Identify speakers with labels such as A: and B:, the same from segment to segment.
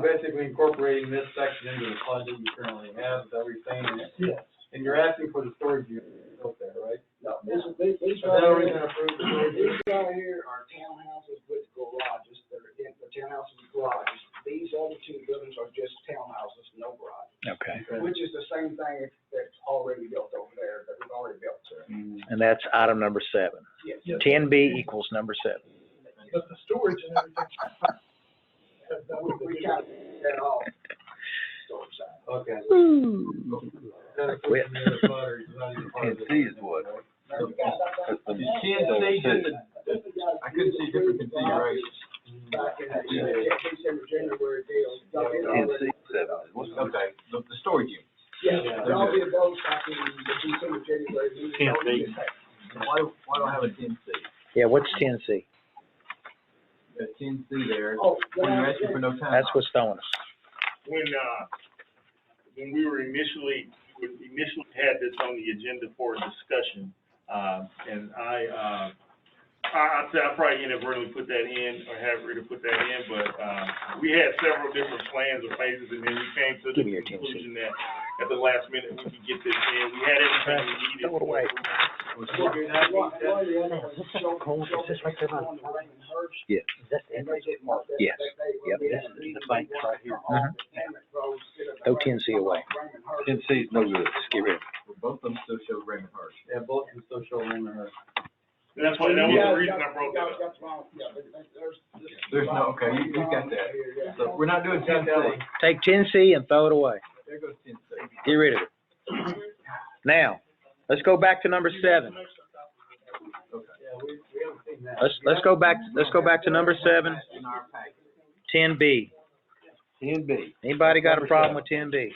A: basically incorporating this section into the budget you currently have, is everything,
B: Yes.
A: and you're asking for the storage unit out there, right?
B: No, this, these, these
A: Is that how we're
B: right here,
A: gonna approve the storage
B: these
A: unit?
B: right here are townhouses with garages, they're, in- the townhouses with garages. These other two buildings are just townhouses, no garage,
C: Okay,
A: Okay.
B: which is the same thing that's already built over there, that was already built, sir.
A: Mm,
C: and that's item number seven.
B: Yes.
C: Ten B equals number seven.
D: But the storage and everything. that- that
B: We,
D: would
B: we
D: be-
B: kind of, that all, storage side.
A: Okay. That
C: Quit.
A: includes the other part, or is that even part of
E: Can't see is what.
A: right?
B: You can't
E: You
A: see just the-
B: I
E: I couldn't see a difference in configuration.
B: Back in the, yeah, December, January deal. Y'all did
E: Can't
B: already-
E: see seven. What's- Okay, the, the storage unit.
B: Yeah, y'all did those back in the December, January meeting.
D: Can't see.
E: Why, why don't I have a ten C?
C: Yeah, what's ten C?
E: Got ten C there,
B: Oh,
E: when
B: yeah,
E: you're asking for no time.
C: That's what's throwing us.
F: when, uh, when we were initially, when we initially had this on the agenda for discussion, uh, and I, uh, I, I'd say I probably inadvertently put that in, or have Rita put that in, but, uh, we had several different plans or phases, and then we came to
C: Give
F: the
C: me your attention.
F: conclusion that at the last minute, we could get this in, we had everything we needed.
C: Throw it away.
A: Would you not think that-
C: cold. Is this right there by the
B: Yes.
C: Yes.
B: And they didn't mark that.
C: Yes.
B: They-
C: Yep,
B: they-
C: this is the bank right here.
B: Mhm.
C: Throw 10C away.
E: Ten C is no good,
C: Just get rid of
E: Both of them still show Raymond Hirsch.
A: Yeah, both of them still show room in her.
F: And that's why, that was the reason I brought that up.
B: That's wrong, yeah, but there's.
E: There's no- okay, you- you got that.
B: Yeah.
E: So we're not doing ten C.
C: it. Take ten C and throw it away.
E: There goes ten C.
C: Get rid of it. Now, let's go back to number seven.
A: Yeah, we, we haven't seen that.
C: Let's, let's go back, let's go back to number seven,
E: In our package.
C: ten B.
E: Ten B.
C: Anybody got a problem with ten B?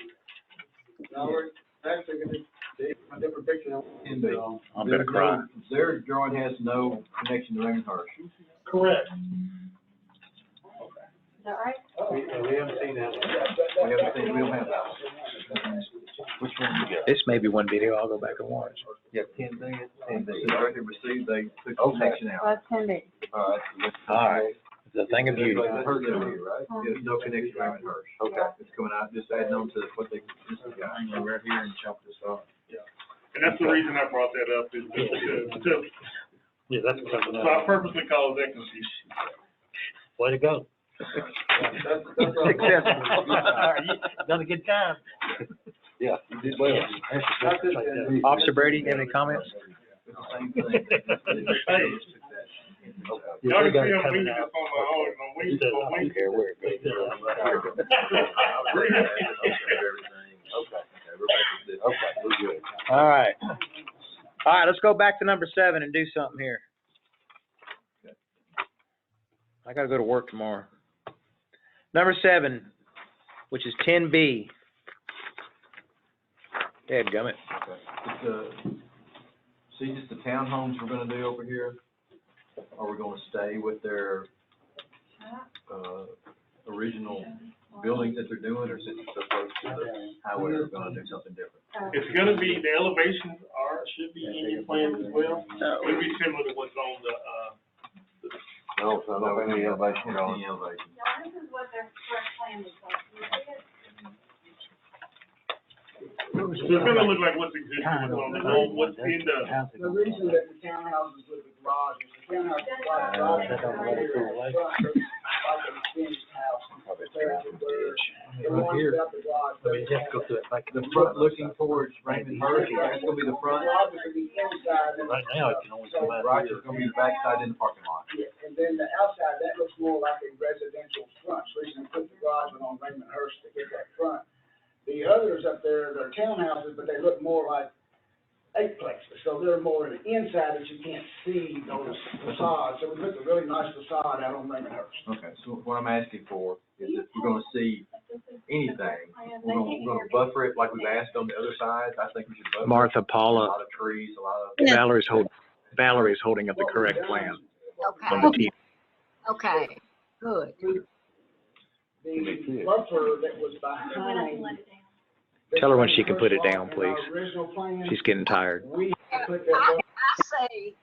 A: Now, we're actually gonna, they, a different picture than
E: Ten B.
C: I'm gonna cry.
E: Their drawing has no connection to Raymond Hirsch.
D: Correct.
A: we, yeah, we haven't seen that one.
E: We haven't seen, we don't have that one. Which one you got?
C: This may be one video I'll go baback and watch.
E: Yeah, ten B, ten B. Right here received, they took the connection out.
G: Well, it's gonna be,
E: All right.
C: Alright. It's a thing of beauty.
E: Hers over here, right? There's no connection to Raymond Hirsch.
G: Okay.
E: It's coming out, just adding on to what they, this is got. Hang on right here and chop this off.
F: And that's the reason I brought that up, is just to, to,
D: Yeah, that's coming
F: so I purposely caused that confusion.
D: Way to go.
A: That's, that's. what I'm-
D: Another good time.
E: Yeah, you did well.
A: That's it, then.
C: Officer Brady, you have any comments?
E: It's the same thing.
F: Y'all can see I'm winking up on my own, I'm winking, I'm winking.
E: Here, where it goes. Okay, we're good.
C: All right. All right, let's go back to number seven and do something here. I gotta go to work tomorrow. Number seven, which is ten B. Dadgummit.
E: It's, uh, see, just the townhomes we're gonna do over here, are we gonna stay with their, uh, original buildings that they're doing, or since it's so close to the highway, we're gonna do something different?
F: It's gonna be, the elevations are, should be in your plan as well. It'll be similar to what's on the, uh,
E: No, no, any elevation at all.
G: now, this is what their first plan is like. You see it?
F: so it's gonna look like what's existing, what's on the, old- what's in the,
B: The reason that the townhouses with the garage is the townhouses like the garage.
G: That's not
B: right here in front, Like an extended house. There's a bird. The
E: Right
B: ones
E: here,
B: without the garage,
E: I mean, you have to go to it, like, the front looking towards Raymond Hirsch, that's gonna be the front,
B: garage is gonna be inside and-
D: Right now, it can only come out.
E: Roger's gonna be the backside in the parking lot.
B: Yeah, and then the outside, that looks more like a residential front, so you can put the garage on Raymond Hurst to get that front. The others up there, they're townhouses, but they look more like eight plexes, so they're more in the inside that you can't see those facades, so we put the really nice facade out on Raymond Hurst.
E: Okay, so what I'm asking for is if we're gonna see anything, we're gonna, we're gonna buffer it like we've asked on the other side, I think we should buffer. it.
C: Martha,
E: A
C: Paula,
E: lot of trees, a lot of,
C: Valerie's holding, Valerie's holding up the correct plan on the
H: Okay,
C: T.
H: okay, good.
B: The buffer that was
G: I went up and
B: behind.
G: let it down.
B: the
C: Tell her when she can put it
B: Raymond
C: down,
B: Hurst lot in our
C: please.
B: Original plan,
C: She's getting tired.
B: we put that
H: I,
B: buffer
H: I say,